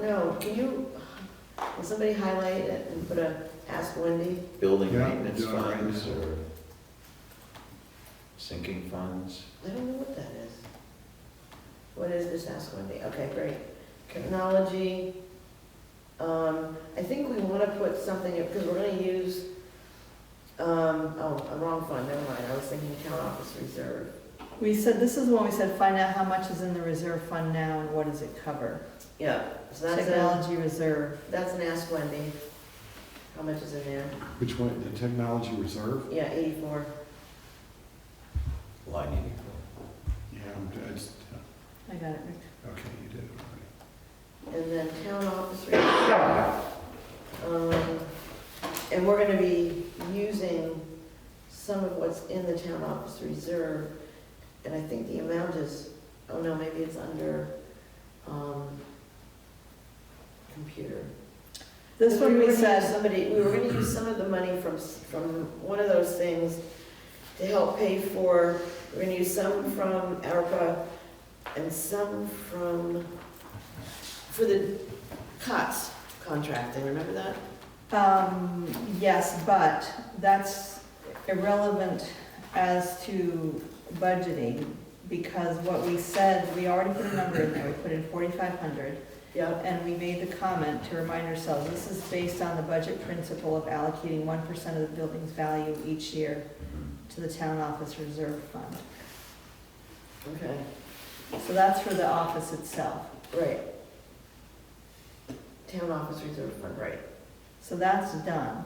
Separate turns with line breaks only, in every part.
know, can you, will somebody highlight it and put a, ask Wendy?
building
Yeah,
maintenance
doing it right
funds
now.
or sinking funds.
I don't know what that is. What is this, ask Wendy? Okay, great. Technology, um, I think we wanna put something, because we're gonna use, um, oh, a wrong fund, never mind, I was thinking town office reserve.
We said, this is when we said, find out how much is in the reserve fund now and what does it cover?
Yeah, so that's a,
Technology reserve,
that's an ask Wendy. How much is in there?
Which one, the technology reserve?
Yeah, eighty-four.
Line eighty-four.
Yeah, I'm- it's,
I got it, Rick.
okay, you did it
And then town office reserve. Um, And we're gonna be using some of what's in the town office reserve. And I think the amount is, oh no, maybe it's under, um, computer.
This one we
were gonna use
said,
Somebody, we were gonna use some of the money from, s- from one of those things to help pay for, we're gonna use some from ARPA and some from, for the COTS contracting, remember that?
um, yes, but that's irrelevant as to budgeting because what we said, we already put a number in there, we put in forty-five hundred.
Yeah.
And we made the comment to remind ourselves, this is based on the budget principle of allocating one percent of the building's value each year to the town office reserve fund.
Okay,
So that's for the office itself.
right. Town office reserve fund, right.
So that's done.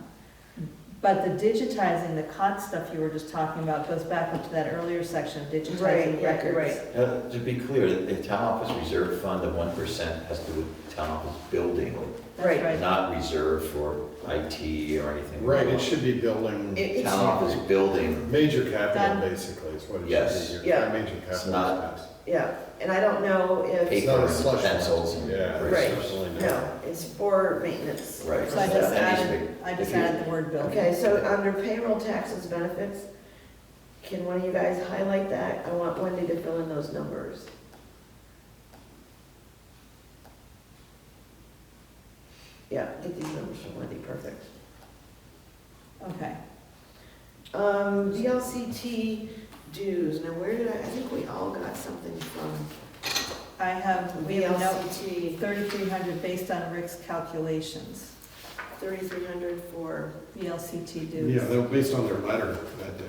But the digitizing, the COT stuff you were just talking about goes back up to that earlier section, digitizing
Right, yeah, you're
records.
Uh, to be clear, the town office reserve fund, the one percent has to do with town office building,
That's
Right.
not reserved for IT or anything.
already. Right, it should be building,
It- it's-
Town office building,
major
Done.
capital, basically, is what it should be.
Yes.
Your
Yeah.
Major
It's
capital.
not-
expense.
Yeah, and I don't know if.
It's
Paper
not a
and
slush fund.
pencils and-
Yeah. it's
Right.
certainly not.
No, it's for maintenance.
Right.
So
That
I
needs
just
to
added,
be-
I just
if you-
added the word building.
Okay, so under payroll taxes benefits, can one of you guys highlight that? I want Wendy to fill in those numbers. Yeah, get these numbers from Wendy, perfect.
Okay,
Um, DLCT dues, now where did I, I think we all got something from
I have, we have a note,
VLCT,
thirty-three hundred based on Rick's calculations,
thirty-three hundred for,
VLCT
Yeah,
dues.
they were based on their letter that day.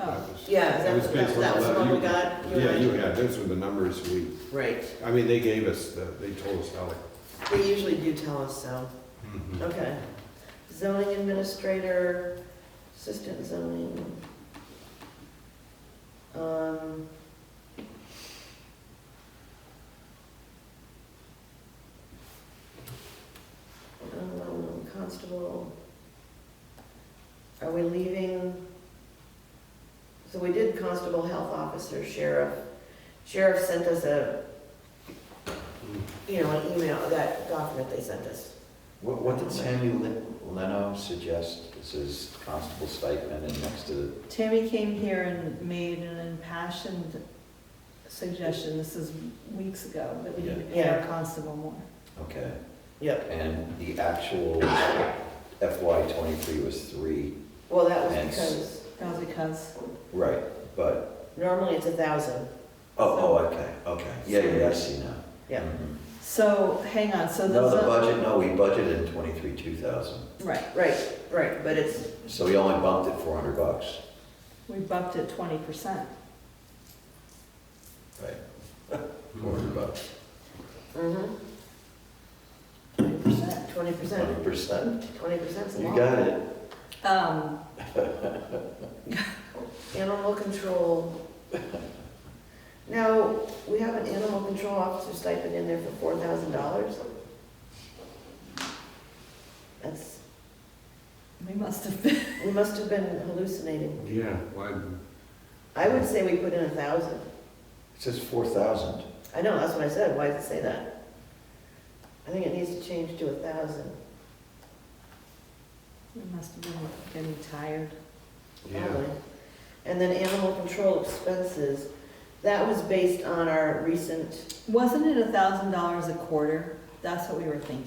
Oh,
That was-
yeah,
It
is
was
that,
based
that
on
that was
the
the one
letter
we got?
you- Yeah, you had, those were the numbers we,
Right,
I mean, they gave us, the. they told us how. mm-hmm.
they usually do tell us so.
to-
Okay. Zoning administrator, assistant zoning. Um, um, Constable. Are we leaving? So we did constable, health officer, sheriff. Sheriff sent us a, you know, an email, that document they sent us.
what, what did Sammy Lin- Leno suggest? This is constable stipend and next to,
Tammy came here and made an impassioned suggestion, this is weeks ago, that we need to pay our
Yeah.
constable more.
okay.
Yep.
And the actual FY twenty-three was three,
Well, that was
And s-
because
That was because,
right, but
normally it's a thousand.
Oh,
So-
oh, okay, okay, yeah, yeah, I see now.
Yeah.
Mhm.
so, hang on, so
No,
the.
the budget, no, we budgeted twenty-three, two thousand,
Right,
Right, right, but it's,
so we only bumped it four hundred bucks,
we bumped it twenty percent.
right? Four hundred
Mm-hmm.
bucks,
Mm-hmm.
Twenty percent.
twenty percent,
twenty percent,
twenty percent's Hmm. a
you
lot.
got it.
Um,
Animal control. Now, we have an animal control officer stipend in there for four thousand dollars. That's,
we must have been,
we must have been hallucinating.
Yeah, why,
I would say we put in a thousand.
It says four thousand,
I know, that's what I said, why does it say that? I think it needs to change to a thousand.
we must have been getting tired.
yeah.
Probably. And then animal control expenses, that was based on our recent,
Wasn't it a thousand dollars a quarter? That's what we were thinking.